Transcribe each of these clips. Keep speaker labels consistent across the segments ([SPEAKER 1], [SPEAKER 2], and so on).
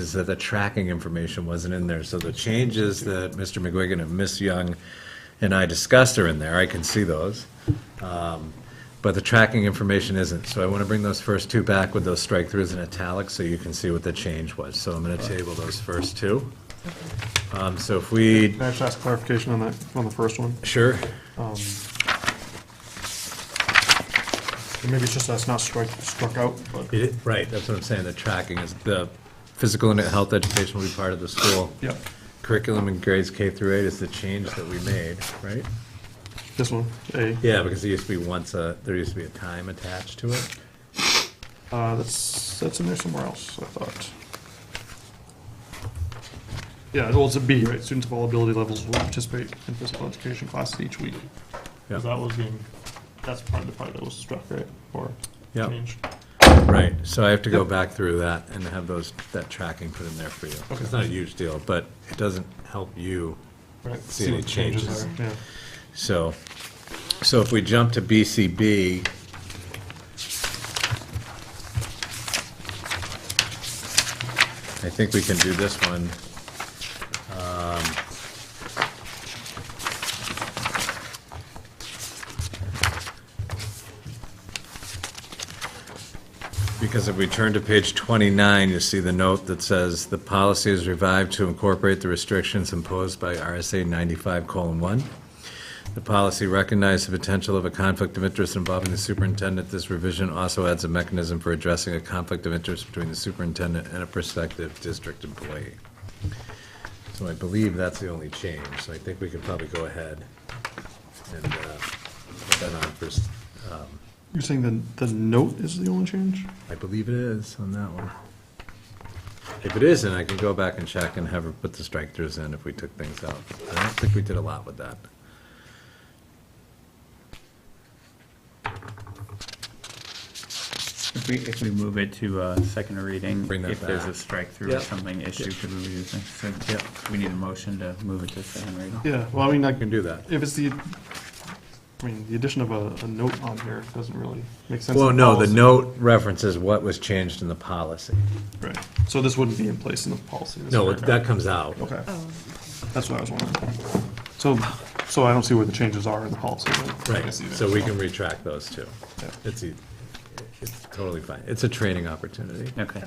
[SPEAKER 1] is that the tracking information wasn't in there, so the changes that Mr. McGuigan and Ms. Young and I discussed are in there, I can see those. Um, But the tracking information isn't, so I want to bring those first two back with those strike-throughs and italics, so you can see what the change was. So I'm going to table those first two. Um, So if we,
[SPEAKER 2] Can I just ask clarification on that, on the first one?
[SPEAKER 1] sure,
[SPEAKER 2] Maybe it's just that's not struck, struck out, but,
[SPEAKER 1] It- right, that's what I'm saying, the tracking is, the physical and health education will be part of the school.
[SPEAKER 2] yeah,
[SPEAKER 1] Curriculum in grades K through eight is the change that we made, right?
[SPEAKER 2] this one, A,
[SPEAKER 1] Yeah, because there used to be once a, there used to be a time attached to it.
[SPEAKER 2] uh, that's, that's in there somewhere else, I thought. Yeah, well, it's a B, right, students of all ability levels will participate in physical education classes each week.
[SPEAKER 1] Yeah.
[SPEAKER 2] 'Cause that was being, that's part of the part that was struck, right, or
[SPEAKER 1] Yeah.
[SPEAKER 2] changed.
[SPEAKER 1] Right, so I have to go
[SPEAKER 2] Yep.
[SPEAKER 1] back through that and have those, that tracking put in there for you.
[SPEAKER 2] Okay.
[SPEAKER 1] It's not a huge deal, but it doesn't help you,
[SPEAKER 2] Right.
[SPEAKER 1] See any
[SPEAKER 2] what the changes
[SPEAKER 1] changes.
[SPEAKER 2] are, Yeah,
[SPEAKER 1] so. So if we jump to BCB, I think we can do this one. Um, Because if we turn to page 29, you see the note that says, "The policy is revived to incorporate the restrictions imposed by RSA 95:1. The policy recognized the potential of a conflict of interest involving the superintendent. This revision also adds a mechanism for addressing a conflict of interest between the superintendent and a prospective district employee." So I believe that's the only change, so I think we could probably go ahead and uh, put that on first. um,
[SPEAKER 2] you're saying the, the note is the only change?
[SPEAKER 1] I believe it is on that one. If it isn't, I can go back and check and have her put the strike-throughs in if we took things out. I don't think we did a lot with that.
[SPEAKER 3] If we, if we move it to a second reading,
[SPEAKER 1] Bring that
[SPEAKER 3] if there's a
[SPEAKER 1] back.
[SPEAKER 3] strike-through
[SPEAKER 1] Yeah.
[SPEAKER 3] or something issue, could we use it? So we need a motion to move it to second reading.
[SPEAKER 2] Yeah, well, I mean, I
[SPEAKER 1] I can do that.
[SPEAKER 2] If it's the, I mean, the addition of a, a note on here doesn't really make sense.
[SPEAKER 1] Well,
[SPEAKER 2] in
[SPEAKER 1] no, the
[SPEAKER 2] policy.
[SPEAKER 1] note references what was changed in the policy.
[SPEAKER 2] Right, so this wouldn't be in place in the policy. this
[SPEAKER 1] No,
[SPEAKER 2] paragraph.
[SPEAKER 1] that comes out.
[SPEAKER 2] Okay, that's what I was wondering. So, so I don't see where the changes are in the policy. but I
[SPEAKER 1] Right,
[SPEAKER 2] guess either,
[SPEAKER 1] so we can retract those two.
[SPEAKER 2] Yeah.
[SPEAKER 1] It's, e- it's totally fine. It's a training opportunity.
[SPEAKER 3] Okay.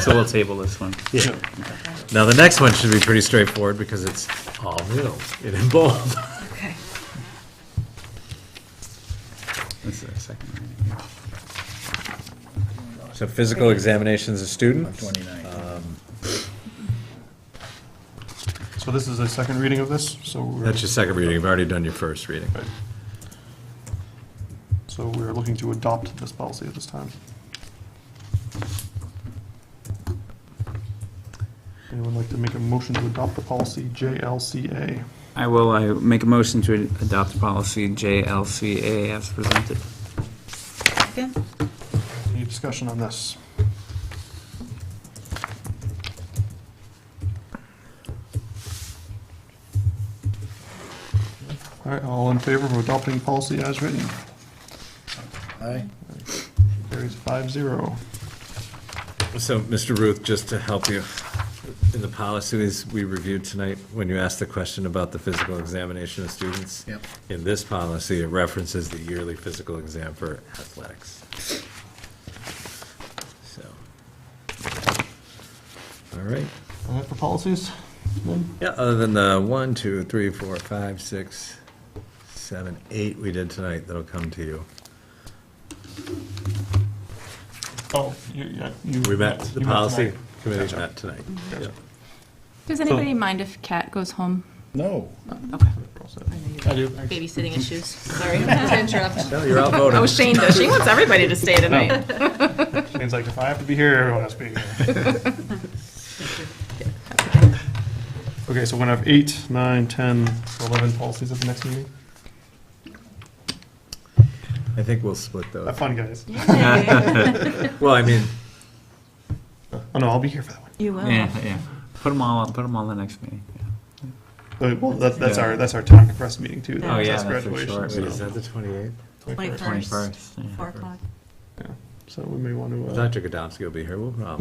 [SPEAKER 3] So we'll table this one.
[SPEAKER 2] Yeah.
[SPEAKER 1] Now, the next one should be pretty straightforward because it's all new. It involved.
[SPEAKER 3] This is a second reading.
[SPEAKER 1] So physical examinations of students.
[SPEAKER 3] Twenty-nine.
[SPEAKER 1] Um,
[SPEAKER 2] So this is a second reading of this, so we're,
[SPEAKER 1] That's your second reading. You've already done your first reading.
[SPEAKER 2] Right. so we're looking to adopt this policy at this time. Anyone like to make a motion to adopt the policy JLCA?
[SPEAKER 3] I will, I make a motion to adopt policy JLCA as presented.
[SPEAKER 4] Second?
[SPEAKER 2] Any discussion on this? All right, all in favor of adopting policy as written?
[SPEAKER 5] Aye.
[SPEAKER 2] Carries five zero.
[SPEAKER 1] So, Mr. Ruth, just to help you, in the policies we reviewed tonight, when you asked the question about the physical examination of students.
[SPEAKER 5] Yep.
[SPEAKER 1] In this policy, it references the yearly physical exam for athletics. So. All right.
[SPEAKER 2] All right, for policies, then?
[SPEAKER 1] Yeah, other than the one, two, three, four, five, six, seven, eight we did tonight, that'll come to you.
[SPEAKER 2] Oh, you, yeah. you-
[SPEAKER 1] We met, the
[SPEAKER 2] you met
[SPEAKER 1] policy
[SPEAKER 2] tonight.
[SPEAKER 1] committee met tonight.
[SPEAKER 2] Gotcha.
[SPEAKER 6] Does anybody mind if Kat goes home?
[SPEAKER 5] No.
[SPEAKER 6] Okay.
[SPEAKER 2] We're all set.
[SPEAKER 4] I do. Babysitting issues, sorry, to interrupt.
[SPEAKER 1] No, you're outvoted.
[SPEAKER 6] Oh, Shane does. She wants everybody to stay tonight.
[SPEAKER 2] Shane's like, if I have to be here, everyone has to be here. Okay, so we're gonna have eight, nine, ten, eleven policies at the next meeting?
[SPEAKER 1] I think we'll split those.
[SPEAKER 3] Oh.
[SPEAKER 2] Have fun, guys.
[SPEAKER 1] Well, I mean,
[SPEAKER 2] Oh, no, I'll be here for that one.
[SPEAKER 4] You will.
[SPEAKER 3] Yeah, yeah. Put them all, put them all in the next meeting. yeah.
[SPEAKER 2] Uh, Well, that's, that's
[SPEAKER 3] Yeah.
[SPEAKER 2] our, that's our time compressed meeting too.
[SPEAKER 3] Oh, yeah,
[SPEAKER 2] That's
[SPEAKER 3] that's for
[SPEAKER 2] graduation.
[SPEAKER 3] sure.
[SPEAKER 1] wait, is
[SPEAKER 2] so-
[SPEAKER 1] that the 28th?
[SPEAKER 4] Twenty-first,
[SPEAKER 3] Twenty-first. yeah.
[SPEAKER 4] four o'clock.
[SPEAKER 2] Yeah. so we may want to. uh,
[SPEAKER 1] Dr. Godomsky will be here, we'll, um,